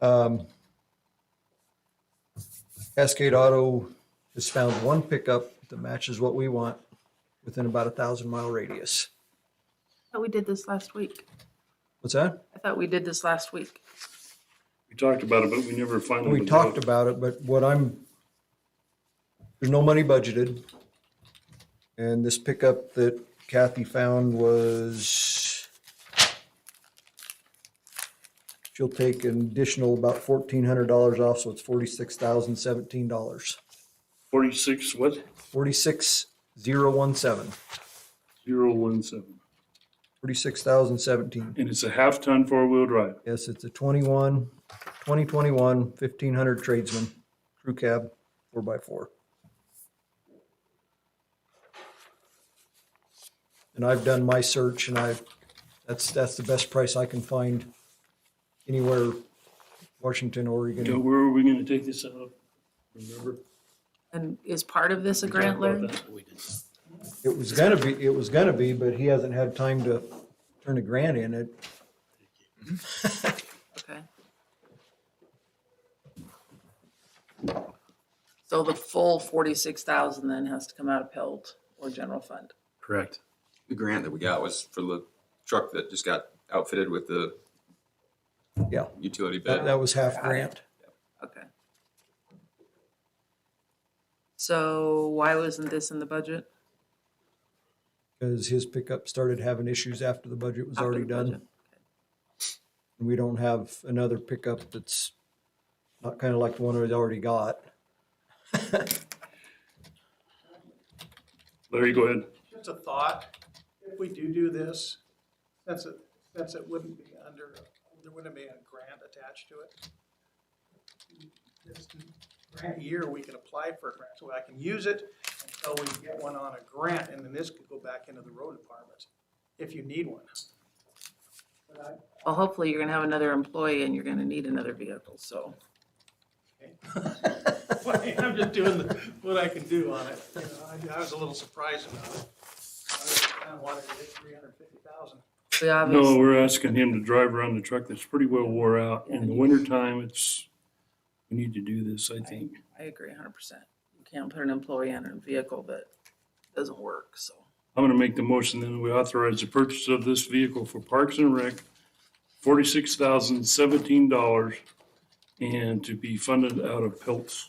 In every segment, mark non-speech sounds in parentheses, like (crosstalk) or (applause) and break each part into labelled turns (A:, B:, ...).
A: Um, Cascade Auto has found one pickup that matches what we want within about a thousand mile radius.
B: thought we did this last week.
A: What's that?
B: I thought we did this last week.
C: We talked about it, but we never finally.
A: We talked about it, but what I'm, there's no money budgeted. And this pickup that Kathy found was, she'll take an additional about fourteen hundred dollars off, so it's forty-six thousand seventeen dollars.
C: Forty-six, what?
A: Forty-six zero one seven,
C: Zero one seven.
A: forty-six thousand seventeen.
C: And it's a half-ton four-wheel drive.
A: Yes, it's a 21, 2021 1500 tradesman, crew cab, four by four. And I've done my search and I've, that's, that's the best price I can find anywhere, Washington,
C: Now,
A: Oregon.
C: where are we gonna take this out of? Remember?
B: And is part of this a
C: Talked
B: grant,
C: about
B: Larry?
C: that. We did.
A: It was gonna be, it was gonna be, but he hasn't had time to turn a grant in it.
B: Okay. So the full forty-six thousand then has to come out of Pelt or general fund.
C: Correct.
D: The grant that we got was for the truck that just got outfitted with the
A: Yeah,
D: utility
A: that,
D: bed.
A: that was half grant.
B: Okay. So why wasn't this in the budget?
A: Cause his pickup started having issues after the budget was
B: After
A: already
B: the
A: done.
B: budget?
A: and we don't have another pickup that's not kind of like the one we already got.
C: Larry, go ahead.
E: Just a thought, if we do do this, since it, since it wouldn't be under, there wouldn't be a grant attached to it. This grant year, we can apply for a grant, so I can use it until we get one on a grant, and then this could go back into the road department, if you need one. But I-
B: Well, hopefully you're gonna have another employee and you're gonna need another vehicle, so.
E: (laughs) I'm just doing the- what I can do on it. You know, I I was a little surprised about it. I kinda wanted to hit three hundred fifty thousand.
B: We
C: No,
B: obviously,
C: we're asking him to drive around the truck that's pretty well wore out. In the wintertime, it's, we need to do this, I think.
B: I agree hundred percent. You can't put an employee on a vehicle that doesn't work, so.
C: I'm gonna make the motion then we authorize the purchase of this vehicle for Parks and Rec, forty-six thousand seventeen dollars, and to be funded out of Pelt's.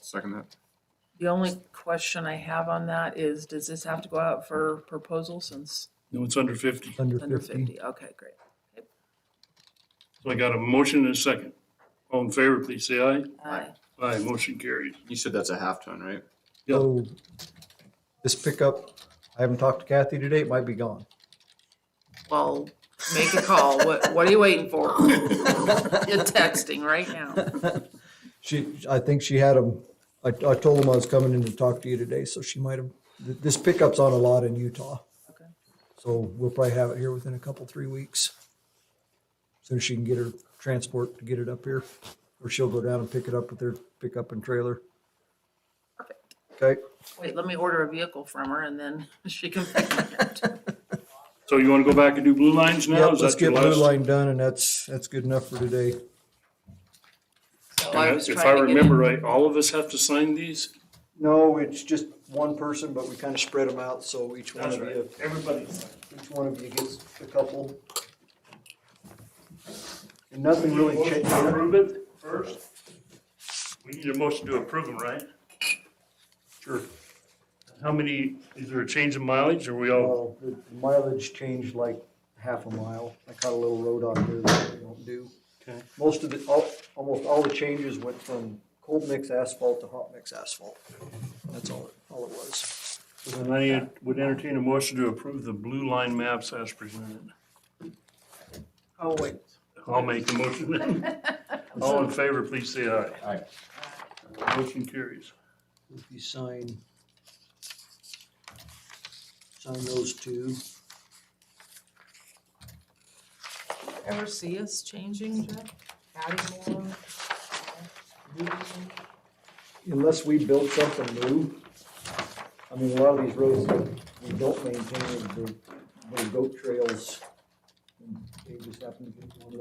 D: Second that.
B: The only question I have on that is, does this have to go out for proposal since
C: No, it's under fifty.
A: Under
B: it's under
A: fifty.
B: fifty? Okay, great.
C: So I got a motion and a second. All in favor, please say aye.
B: Aye.
C: Aye, motion carries.
D: You said that's a half ton, right?
C: Yeah.
A: So this pickup, I haven't talked to Kathy today, it might be gone.
B: Well, make a call. What, what are you waiting for? You're texting right now.
A: She, I think she had them, I, I told them I was coming in to talk to you today, so she might have, th- this pickup's on a lot in Utah.
B: Okay.
A: So we'll probably have it here within a couple, three weeks. Soon as she can get her transport to get it up here, or she'll go down and pick it up with her pickup and trailer.
B: Perfect.
A: Okay,
B: Wait, let me order a vehicle from her and then (laughs) she can pick me up.
C: So you want to go back and do blue lines now?
A: yep,
C: Is
A: let's
C: that your
A: get blue
C: last?
A: line done and that's, that's good enough for today.
B: So I was
C: And If I
B: trying to get
C: remember
B: in-
C: right, all of us have to sign these?
A: No, it's just one person, but we kind of spread them out, so each one of you,
C: Everybody.
A: each one of you gets a couple. And nothing really changed.
C: Approve it first? We need a motion to approve them, right? Sure. How many, is there a change in mileage? Are we all,
A: Well, the mileage changed like half a mile. I caught a little road on here that we don't do.
C: Okay.
A: Most of the, all, almost all the changes went from cold mix asphalt to hot mix asphalt. That's all, it- all it was.
C: then I would entertain a motion to approve the blue line maps as presented.
B: Oh, wait.
C: I'll make the motion then. All in favor, please say aye. Aye. Motion carries.
A: If you sign, sign those two.
B: Ever see us changing, Jeff? Adding more?
A: unless we build something new, I mean, a lot of these roads, we don't maintain, they're, they're goat trails. and They just happen to be one of